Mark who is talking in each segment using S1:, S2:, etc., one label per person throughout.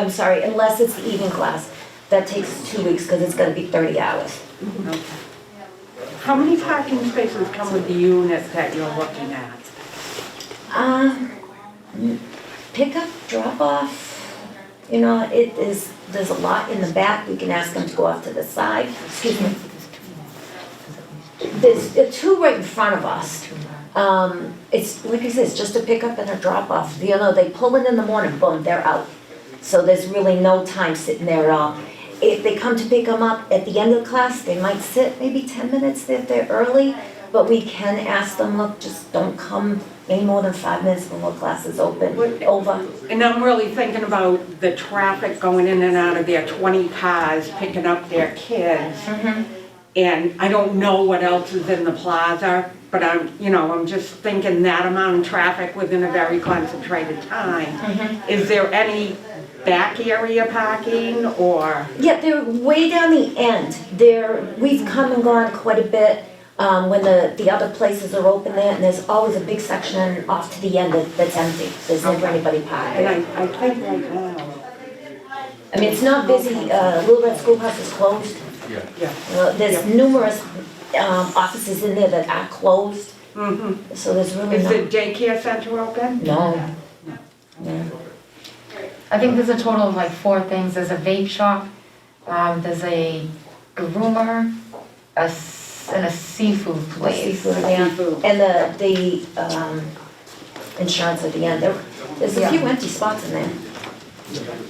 S1: I'm sorry, unless it's the evening class, that takes two weeks because it's gonna be thirty hours.
S2: How many parking spaces come with the unit that you're looking at?
S1: Um, pick up, drop off, you know, it is, there's a lot in the back, we can ask them to go off to the side, excuse me. There's there are two right in front of us. Um, it's, like I said, it's just a pickup and a drop off, you know, they pull in in the morning, boom, they're out. So there's really no time sitting there at all. If they come to pick them up at the end of class, they might sit maybe ten minutes if they're early, but we can ask them, look, just don't come any more than five minutes before class is open,
S2: What-
S1: over.
S2: And I'm really thinking about the traffic going in and out of there, 20 cars picking up their kids.
S1: Mm-hmm.
S2: And I don't know what else is in the plaza, but I'm, you know, I'm just thinking that amount of traffic within a very concentrated time. Is there any back area parking or?
S1: Yeah, they're way down the end. They're, we've come and gone quite a bit um, when the, the other places are open there, and there's always a big section off to the end that, that's empty. There's never anybody
S2: And
S1: parked.
S2: I, I think right now,
S1: I mean, it's not busy, uh, Little Red Schoolhouse is closed.
S2: yeah.
S1: Uh, There's numerous um, offices in there that are closed,
S2: Mhm.
S1: so there's really
S2: Is the
S1: no,
S2: daycare center open?
S1: no. No.
S3: I think there's a total of like four things, there's a vape shop, um, there's a groomer, a, s- and a seafood place.
S1: Seafood, yeah.
S2: Seafood.
S1: And the, the um, insurance at the end, There- there's a few
S3: Yeah.
S1: empty spots in there.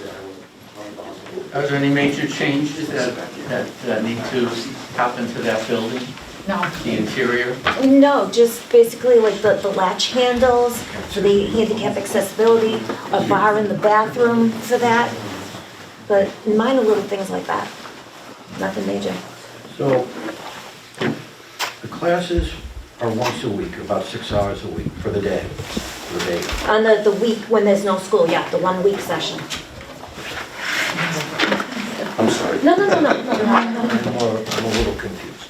S4: Are there any major changes that, that that need to happen to that building,
S3: No,
S4: the interior?
S1: No, just basically like the, the latch handles, for the handicap accessibility, a bar in the bathroom for that. But minor little things like that, nothing major.
S5: So, the classes are once a week, about six hours a week for the day, for the day.
S1: On the, the week when there's no school, yeah, the one week session.
S5: I'm sorry,
S1: No, no, no, no, no, no.
S5: I'm a, I'm a little confused.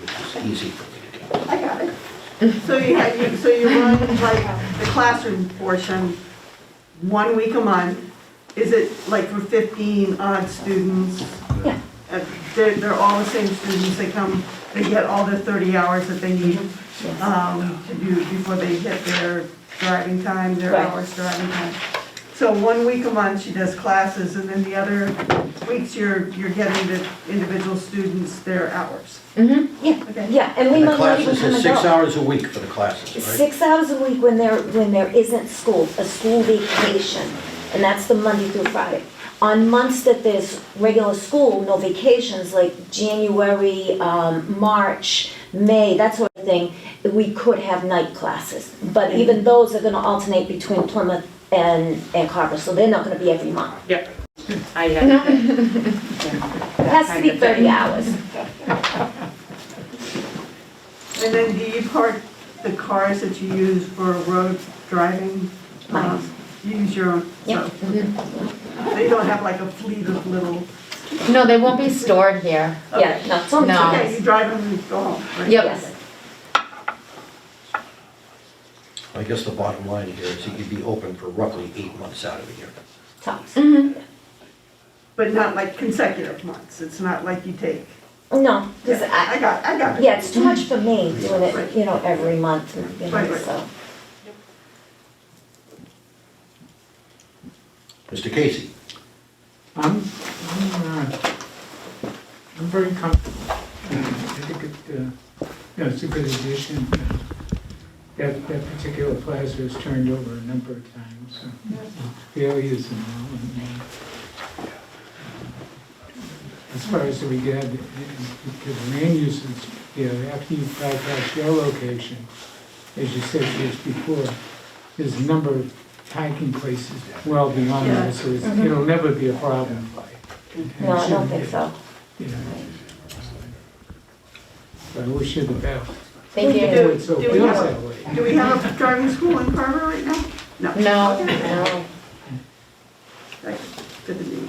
S5: Which is easy for me to do.
S6: I got it. So you had, you- so you run like the classroom portion, one week a month. Is it like for fifteen odd students?
S1: Yeah.
S6: Uh, They're, they're all the same students, they come, they get all the thirty hours that they need um, to do before they hit their driving time, their
S1: Right.
S6: hours driving time. So one week a month, she does classes, and then the other weeks, you're, you're getting the individual students their hours.
S1: Mm-hmm, yeah,
S6: Okay.
S1: yeah, and we
S5: And the
S1: might not even
S5: classes
S1: come
S5: is
S1: and
S5: six
S1: go.
S5: hours a week for the classes, right?
S1: Six hours a week when there, when there isn't school, a school vacation, and that's the Monday through Friday. On months that there's regular school, no vacations, like January, um, March, May, that sort of thing, we could have night classes. But even those are gonna alternate between Plymouth and, and Carver, so they're not gonna be every month.
S2: Yep. I have.
S1: It has to be thirty hours.
S6: And then do you park the cars that you use for road driving?
S1: Mine.
S6: Um, You use your own?
S1: Yeah.
S6: so- So you don't have like a fleet of little,
S3: no, they won't be stored here.
S1: Yeah, no, it's only two
S3: No.
S1: days.
S6: okay, you drive them and go home, right?
S1: Yes.
S5: I guess the bottom line here is it could be open for roughly eight months out of the year.
S1: tops.
S6: But not like consecutive months, it's not like you take.
S1: No, because
S6: Yeah,
S1: I,
S6: I got, I got it.
S1: Yeah, it's too much for me doing it, you know, every month, you know,
S6: Right.
S1: so.
S5: Mr. Casey?
S7: I'm, I'm, uh, I'm very comfortable. Uh, I think it, uh, you know, it's a good addition. Uh, That, that particular plaza has turned over a number of times, so they'll use them all. and, uh, As far as we get, uh, because the land uses, you know, after you bypass your location, as you said just before, there's a number of hiking places well beyond that, so it's- it'll never be a problem.
S1: No, Mm-hmm. I don't think so.
S7: Yeah. But I wish you the best.
S3: Thank
S6: We
S3: you.
S6: do.
S7: So it
S6: Do we
S7: feels
S6: have a-
S7: that way.
S6: Do we have a driving school in Carver right now? No.
S3: No,
S6: Okay.
S3: no.
S6: Right, Good to meet you.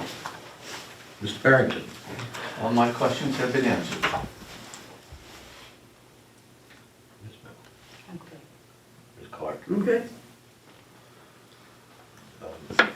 S5: Mr. Barrington?
S4: All my questions have been answered.